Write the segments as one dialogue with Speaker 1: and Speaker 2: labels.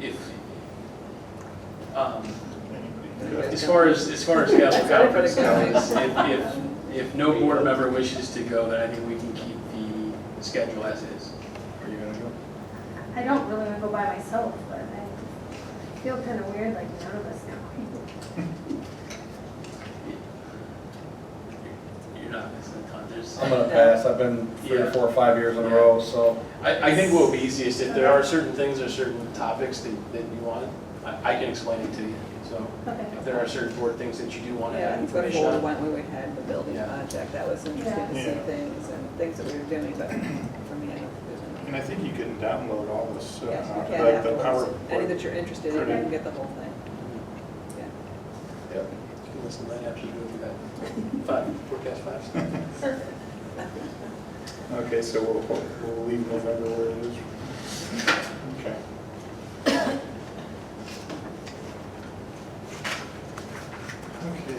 Speaker 1: if, um, as far as, as far as council conference goes, if, if, if no board member wishes to go, then I think we can keep the schedule as is.
Speaker 2: Are you gonna go?
Speaker 3: I don't really want to go by myself, but I feel kind of weird, like none of us know.
Speaker 1: You're not missing a ton, there's,
Speaker 2: I'm gonna pass, I've been three or
Speaker 1: Yeah.
Speaker 2: four or five years in a row, so.
Speaker 1: I, I think what would be easiest, if there are certain things or certain topics that, that you want, I, I can explain it to you. So
Speaker 3: Okay.
Speaker 1: if there are certain board things that you do want to
Speaker 4: Yeah,
Speaker 1: have
Speaker 4: I think
Speaker 1: information
Speaker 4: before
Speaker 1: on.
Speaker 4: when we had the building
Speaker 1: Yeah.
Speaker 4: project, that was interesting to see
Speaker 5: Yeah.
Speaker 4: things and things that we were doing, but for me, I don't think there's any.
Speaker 5: And I think you can download all this, uh,
Speaker 4: Yes, we can
Speaker 5: like the
Speaker 4: afterwards. Any that
Speaker 5: PowerPoint.
Speaker 4: you're interested in, you
Speaker 5: Pretty.
Speaker 4: can get the whole thing. Yeah.
Speaker 2: yeah.
Speaker 1: You can listen to that after you go through that. Five, forecast five.
Speaker 5: Okay, so we'll, we'll- we'll leave November where it is. Okay. Okay.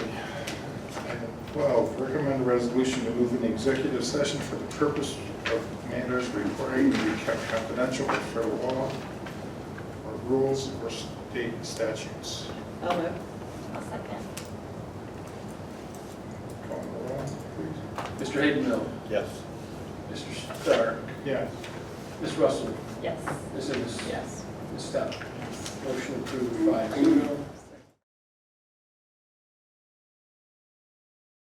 Speaker 5: Item 12, recommend a resolution to move into executive session for the purpose of matters requiring to be kept confidential by federal law or rules or state statutes.
Speaker 4: I'll move.
Speaker 6: I'll second.
Speaker 5: Call the roll, please.
Speaker 1: Mr. Hayden Mill,
Speaker 2: Yes.
Speaker 1: Mr. Stark,
Speaker 5: Yes.
Speaker 1: Ms. Russell,
Speaker 6: Yes.
Speaker 1: Ms. Ennis,
Speaker 4: Yes.
Speaker 1: Ms. Stout. Motion approved by zero.